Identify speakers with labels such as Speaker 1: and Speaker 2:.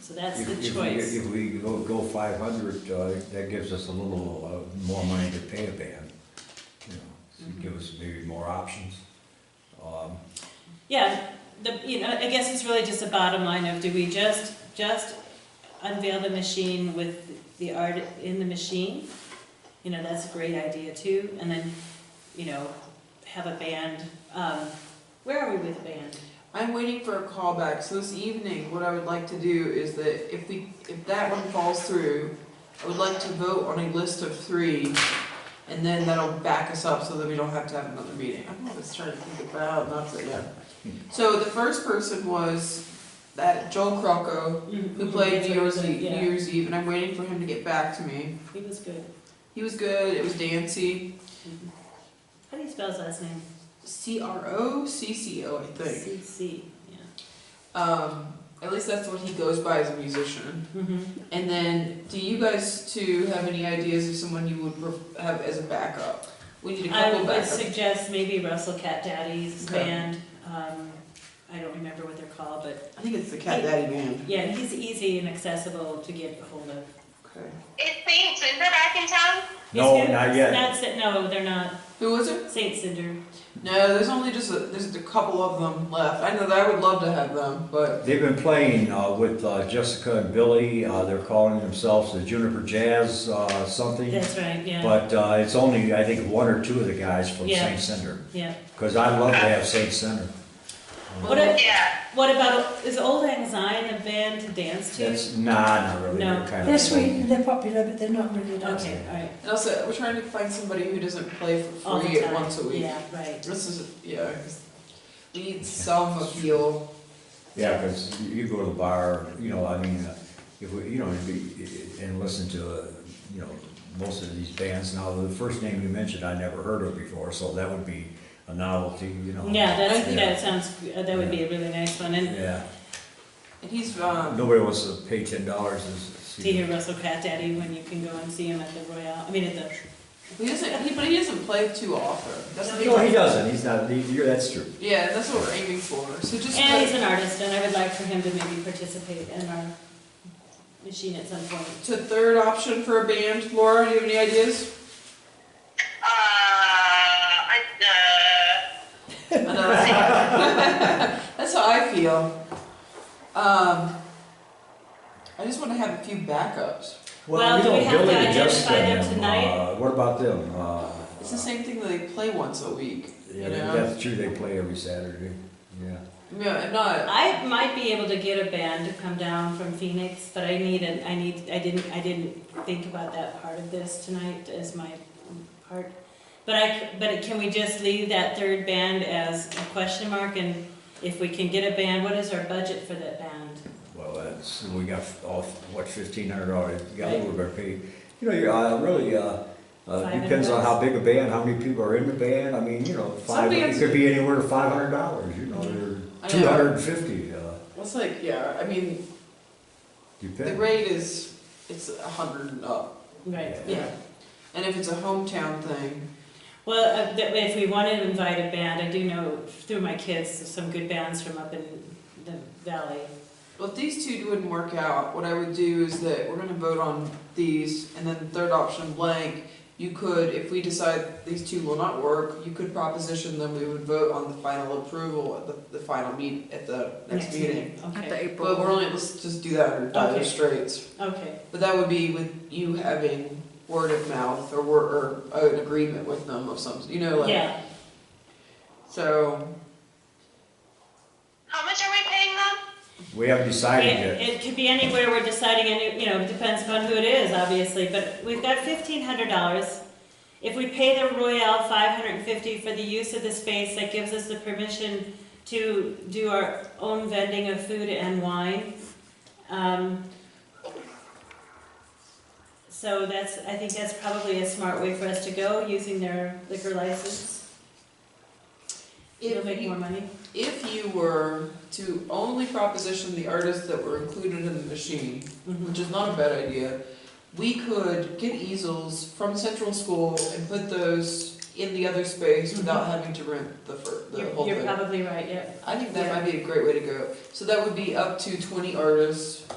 Speaker 1: So that's
Speaker 2: If-
Speaker 1: the
Speaker 2: if we-
Speaker 1: choice.
Speaker 2: If we go, go five hundred, uh, that gives us a little, uh, more money to pay a band, you know, so give us maybe more options. Um,
Speaker 1: Yeah, the, you know, I guess it's really just a bottom line of, do we just, just unveil the machine with the art in the machine? You know, that's a great idea too, and then, you know, have a band, um, where are we with band?
Speaker 3: I'm waiting for a callback, so this evening, what I would like to do is that if we, if that one falls through, I would like to vote on a list of three, and then that'll back us up so that we don't have to have another meeting. I'm always trying to think about, not that, yeah. So the first person was that Joel Crocco,
Speaker 1: Mm-hmm.
Speaker 3: who played New Year's Eve, New
Speaker 1: Yeah,
Speaker 3: Year's Eve, and I'm waiting for him to get back to me.
Speaker 1: he was good. Mm-hmm.
Speaker 3: He was good, it was dancey,
Speaker 1: How do you spell his last name?
Speaker 3: C R O C C O, I think.
Speaker 1: C C, yeah.
Speaker 3: Um, at least that's what he goes by as a musician.
Speaker 1: Mm-hmm.
Speaker 3: And then, do you guys two have any ideas of someone you would pref- have as a backup? We need a
Speaker 1: I
Speaker 3: couple
Speaker 1: would
Speaker 3: backups.
Speaker 1: suggest maybe Russell Cat Daddy's
Speaker 3: Okay.
Speaker 1: band, um, I don't remember what they're called, but
Speaker 3: I think it's the Cat Daddy Band.
Speaker 1: Yeah, he's easy and accessible to get a hold of.
Speaker 3: Okay.
Speaker 4: Is St. Cinder back in town?
Speaker 2: No,
Speaker 1: He's good.
Speaker 2: not yet.
Speaker 1: Not Cin- no, they're not.
Speaker 3: Who was it?
Speaker 1: Saint Cinder.
Speaker 3: No, there's only just a, there's a couple of them left. I know that I would love to have them, but
Speaker 2: They've been playing, uh, with, uh, Jessica and Billy, uh, they're calling themselves the Juniper Jazz, uh, something.
Speaker 1: That's right, yeah,
Speaker 2: But, uh, it's only, I think, one or two of the guys from
Speaker 1: Yeah.
Speaker 2: St. Cinder,
Speaker 1: yeah.
Speaker 2: cause I'd love to have St. Cinder.
Speaker 1: What, a-
Speaker 4: Yeah.
Speaker 1: what about, is Old Anxiety a band to dance to?
Speaker 2: That's, nah, not really,
Speaker 1: No.
Speaker 2: they're kind of.
Speaker 5: They're sweet, they're popular, but they're not really nice.
Speaker 1: Okay, all right.
Speaker 3: and also we're trying to find somebody who doesn't play for
Speaker 1: All the
Speaker 3: free
Speaker 1: time.
Speaker 3: once a week.
Speaker 1: Yeah, right.
Speaker 3: This is yeah. 'cause We need some appeal.
Speaker 2: Yeah, because you go to the bar, you know, I mean, uh, if we, you know, if we- and listen to, uh, you know, most of these bands. Now, the first name you mentioned, I never heard of before, so that would be a novelty, you know.
Speaker 1: Yeah, that's,
Speaker 2: Yeah.
Speaker 1: that sounds, uh, that would be a really nice one, and
Speaker 2: Yeah,
Speaker 3: And he's um,
Speaker 2: nobody wants to pay ten dollars to s-
Speaker 1: to
Speaker 2: see.
Speaker 1: hear Russell Cat Daddy when you can go and see him at the Royale, I mean, at the,
Speaker 3: he doesn't he, but he doesn't play too often. That's the thing.
Speaker 2: No, he doesn't, he's not, he- you're, that's true.
Speaker 3: Yeah, that's what we're aiming for. So just
Speaker 1: and he's an artist, and I would like for him to maybe participate in our machine at some point.
Speaker 3: to third option for a band. Laura, do you have any ideas?
Speaker 4: Uh, I, uh,
Speaker 3: That's how I feel. Um, I just want to have a few backups.
Speaker 1: Well, do we
Speaker 2: don't
Speaker 1: have to
Speaker 2: really
Speaker 1: identify
Speaker 2: adjust
Speaker 1: them tonight?
Speaker 2: Uh, What about them? Uh,
Speaker 3: It's the same thing that they play once a week.
Speaker 2: Yeah,
Speaker 3: you know?
Speaker 2: that's true, they play every Saturday, yeah.
Speaker 3: No, I'm not.
Speaker 1: I might be able to get a band to come down from Phoenix, but I need an, I need, I didn't, I didn't think about that part of this tonight as my part. But I, c- but can we just leave that third band as a question mark and if we can get a band, what is our budget for that band?
Speaker 2: Well, that's, we got off, what, fifteen hundred dollars, you got a little bit of pay. You know, you, uh, really, uh, uh,
Speaker 1: Five
Speaker 2: depends on
Speaker 1: hundred
Speaker 2: how big a band, how many people are in the band, I mean, you know, five, it
Speaker 3: bands-
Speaker 2: could be anywhere to five hundred dollars, you know, or
Speaker 3: I
Speaker 2: two
Speaker 3: know.
Speaker 2: hundred and fifty, uh,
Speaker 3: It's like, yeah, I mean, the
Speaker 2: depends.
Speaker 3: rate is, it's a hundred and up.
Speaker 1: Right,
Speaker 3: Yeah. And if it's a hometown thing,
Speaker 1: Well, uh, that- if we want to invite a band, I do know through my kids, some good bands from up in the valley.
Speaker 3: well, if these two wouldn't work out, what I would do is that we're gonna vote on these, and then third option blank. You could, if we decide these two will not work, you could proposition them. We would vote on the final approval at the, the final meet at the next meeting.
Speaker 1: Okay.
Speaker 3: But we're only, let's just do that under dire
Speaker 1: Okay.
Speaker 3: straits.
Speaker 1: Okay,
Speaker 3: But that would be with you having word of mouth or word, or an agreement with them of some, you know, like.
Speaker 1: yeah,
Speaker 3: So,
Speaker 4: how much are we paying them?
Speaker 2: We haven't decided
Speaker 1: it,
Speaker 2: yet.
Speaker 1: it could be anywhere, we're deciding, any- you know, it depends upon who it is, obviously, but we've got fifteen hundred dollars. If we pay the Royale five hundred and fifty for the use of the space, that gives us the permission to do our own vending of food and wine. Um, So that's, I think that's probably a smart way for us to go, using their liquor license. It'll
Speaker 3: if
Speaker 1: make more
Speaker 3: you,
Speaker 1: money.
Speaker 3: if you were to only proposition the artists that were included in the machine,
Speaker 1: Mhm.
Speaker 3: which is not a bad idea, we could get easels from Central School and put those in the other space without having to rent the fir, the
Speaker 1: Mm-hmm. You're-
Speaker 3: whole thing.
Speaker 1: You're probably right, yeah.
Speaker 3: I think that might be a great way to go. So that would be up to twenty artists